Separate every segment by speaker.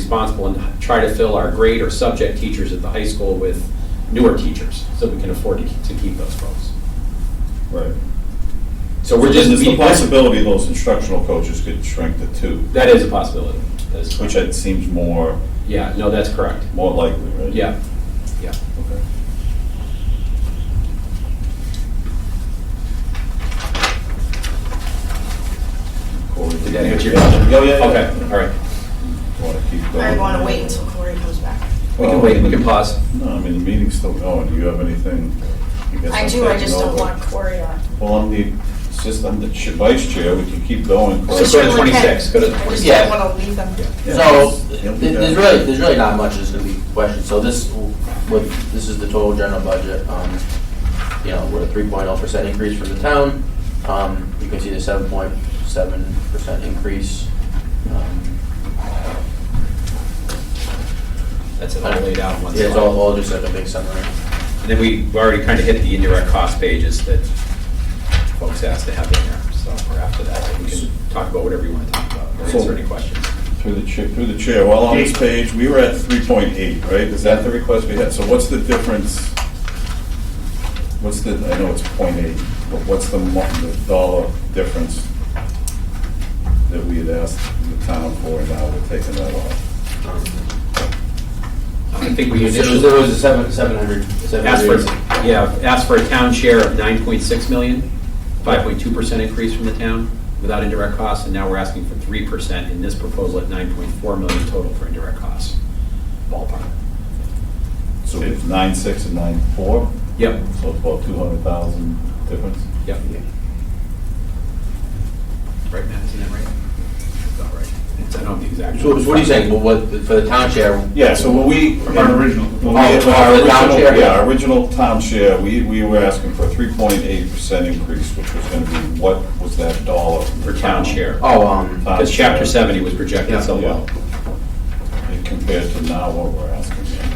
Speaker 1: responsible and try to fill our grade or subject teachers at the high school with newer teachers, so we can afford to to keep those folks.
Speaker 2: Right.
Speaker 1: So we're just.
Speaker 2: There's
Speaker 1: we-
Speaker 2: the possibility those instructional coaches could shrink to two,
Speaker 1: That is a possibility. That is
Speaker 2: which
Speaker 1: correct.
Speaker 2: it seems more,
Speaker 1: Yeah, no, that's correct.
Speaker 2: more likely, right?
Speaker 1: Yeah, yeah.
Speaker 2: Okay. Corey,
Speaker 1: Did that answer your
Speaker 2: yeah,
Speaker 1: question?
Speaker 2: Yeah, yeah.
Speaker 1: Okay, all right.
Speaker 2: Want to keep going?
Speaker 3: I want to wait until Corey comes back.
Speaker 1: We can wait, we can pause.
Speaker 2: No, I mean, the meeting's still going. Do you have anything? guess
Speaker 3: I
Speaker 2: I'm
Speaker 3: do, I
Speaker 2: taking
Speaker 3: just don't
Speaker 2: over.
Speaker 3: want Corey on.
Speaker 2: Well, I'm the, assistant, I'm the ch- vice chair. We can keep going. Corey.
Speaker 1: So go to 26, go to
Speaker 3: I just
Speaker 1: 26.
Speaker 3: don't want to leave them.
Speaker 2: Yeah.
Speaker 4: So,
Speaker 2: Yeah,
Speaker 4: th-
Speaker 2: we
Speaker 4: there's
Speaker 2: got it.
Speaker 4: really, there's really not much that's gonna be questioned, so this, what, this is the total general budget, um, you know, we're a three oh percent increase from the town, um, you can see the seven point seven percent increase. Um,
Speaker 1: That's it, all laid out in one
Speaker 4: Yeah, it's
Speaker 1: slide.
Speaker 4: all, all just like a big summary.
Speaker 1: And then we already kind of hit the indirect cost pages that folks asked to have in there, so we're after that. so We can talk about whatever you want to talk about, or answer any questions.
Speaker 2: Through the chair, through the chair, while on this page, we were at 3.8, right? Is that the request we had? So what's the difference? What's the, I know it's .8, but what's the mo- the dollar difference that we had asked the town for, and now we're taking that off?
Speaker 4: Um,
Speaker 1: I think we
Speaker 4: There was, there
Speaker 1: initially
Speaker 4: was a seven, seven hundred, seven
Speaker 1: asked for,
Speaker 4: hundred.
Speaker 1: yeah, asked for a town share of 9.6 million, 5.2% increase from the town without indirect costs, and now we're asking for 3% in this proposal at 9.4 million total for indirect costs, ballpark.
Speaker 2: So we have 9.6 and 9.4,
Speaker 1: Yep,
Speaker 2: so it's about 200,000 difference?
Speaker 1: yep. Right, Matt, isn't that right? That's about right. It's- I don't have the exact.
Speaker 4: So what are you saying, well, what, for the town share,
Speaker 2: Yeah, so when we.
Speaker 5: Our original.
Speaker 2: When
Speaker 4: Oh,
Speaker 2: we-
Speaker 4: for
Speaker 2: our
Speaker 4: the town
Speaker 2: original-
Speaker 4: share?
Speaker 2: Yeah, our original town share, we, we were asking for a three point eight percent increase, which was gonna be, what was that dollar?
Speaker 1: For town share.
Speaker 4: oh, um,
Speaker 2: Town
Speaker 1: Because chapter
Speaker 2: share.
Speaker 1: seventy was projected so
Speaker 2: Yeah.
Speaker 1: well.
Speaker 2: And Compared to now what we're asking. yeah.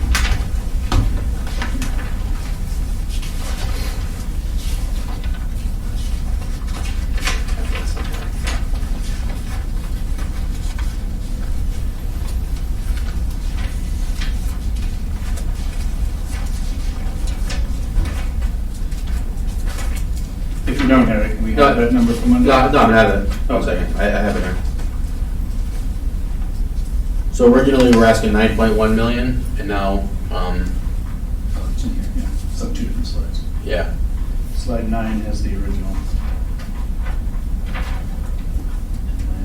Speaker 5: If you don't have it, we
Speaker 4: No.
Speaker 5: have that number for Monday. Oh,
Speaker 4: No, no, I haven't. One second, I, I have it here. So originally, we were asking nine point one million, and now, um,
Speaker 5: Oh, it's in here, yeah. So two different slides.
Speaker 4: yeah,
Speaker 5: Slide nine has the original.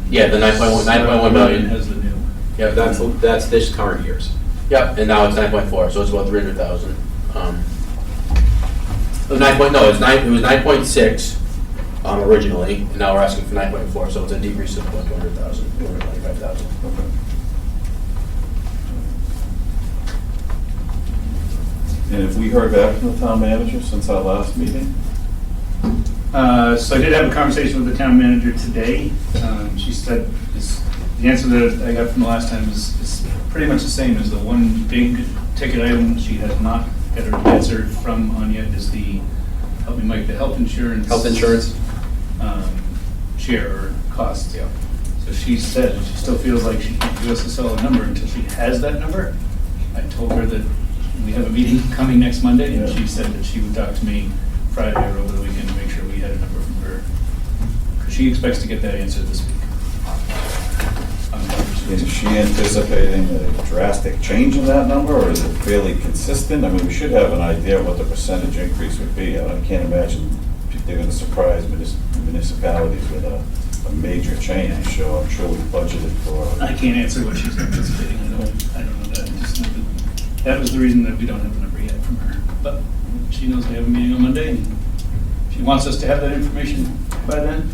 Speaker 4: Yeah, the 9.1 9.1 million.
Speaker 5: Slide 11 Has the new.
Speaker 4: yep,
Speaker 1: That's,
Speaker 4: that's,
Speaker 1: that's this current year's.
Speaker 4: yep, and now it's nine point four, so it's about three hundred thousand. Um, nine point, no, it's nine, it was nine point six, um, originally, and now we're asking for nine point four, so it's a decrease of about two hundred thousand, two hundred twenty-five thousand.
Speaker 2: And if we heard back from the town manager since our last meeting?
Speaker 5: Uh, So I did have a conversation with the town manager today. Um, She said, is- the answer that I got from the last time is, is pretty much the same as the one big ticket item she has not got her answer from on yet is the, help me Mike, the health insurance.
Speaker 1: Health insurance?
Speaker 5: um, share or cost. Yeah. So she said she still feels like she can't give us a solid number until she has that number. I told her that we have a meeting coming next Monday, and
Speaker 2: Yeah.
Speaker 5: she said that she would talk to me Friday or over the weekend to make sure we had a number from her. 'Cause she expects to get that answer this week. On the numbers.
Speaker 2: Is she anticipating a drastic change in that number, or is it fairly consistent? I mean, we should have an idea what the percentage increase would be. I can't imagine if they're gonna surprise munis- municipalities with a, a major change, so I'm sure we budgeted
Speaker 5: I
Speaker 2: for.
Speaker 5: can't answer what she's anticipating, I don't, I don't know that, I just know that, that was the reason that we don't have the number yet from her. But she knows they have a meeting on Monday, and she wants us to have that information by then.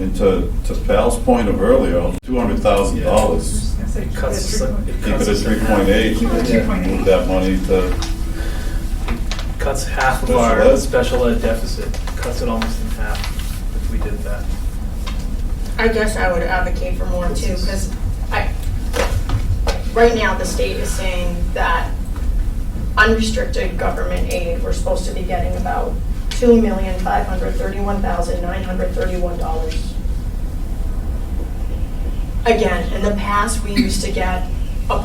Speaker 2: And to, hmm, to Pal's point of earlier, two hundred thousand dollars,
Speaker 5: It cuts us,
Speaker 2: keep it at three point eight, move that money to,
Speaker 6: cuts half of
Speaker 2: Special
Speaker 6: our
Speaker 2: ed?
Speaker 6: special ed deficit, cuts it almost in half if we did that.
Speaker 3: I guess I would advocate for more too, because I, right now, the state is saying that unrestricted government aid, we're supposed to be getting about two million five hundred thirty-one thousand nine hundred thirty-one dollars. Again, in the past, we used to get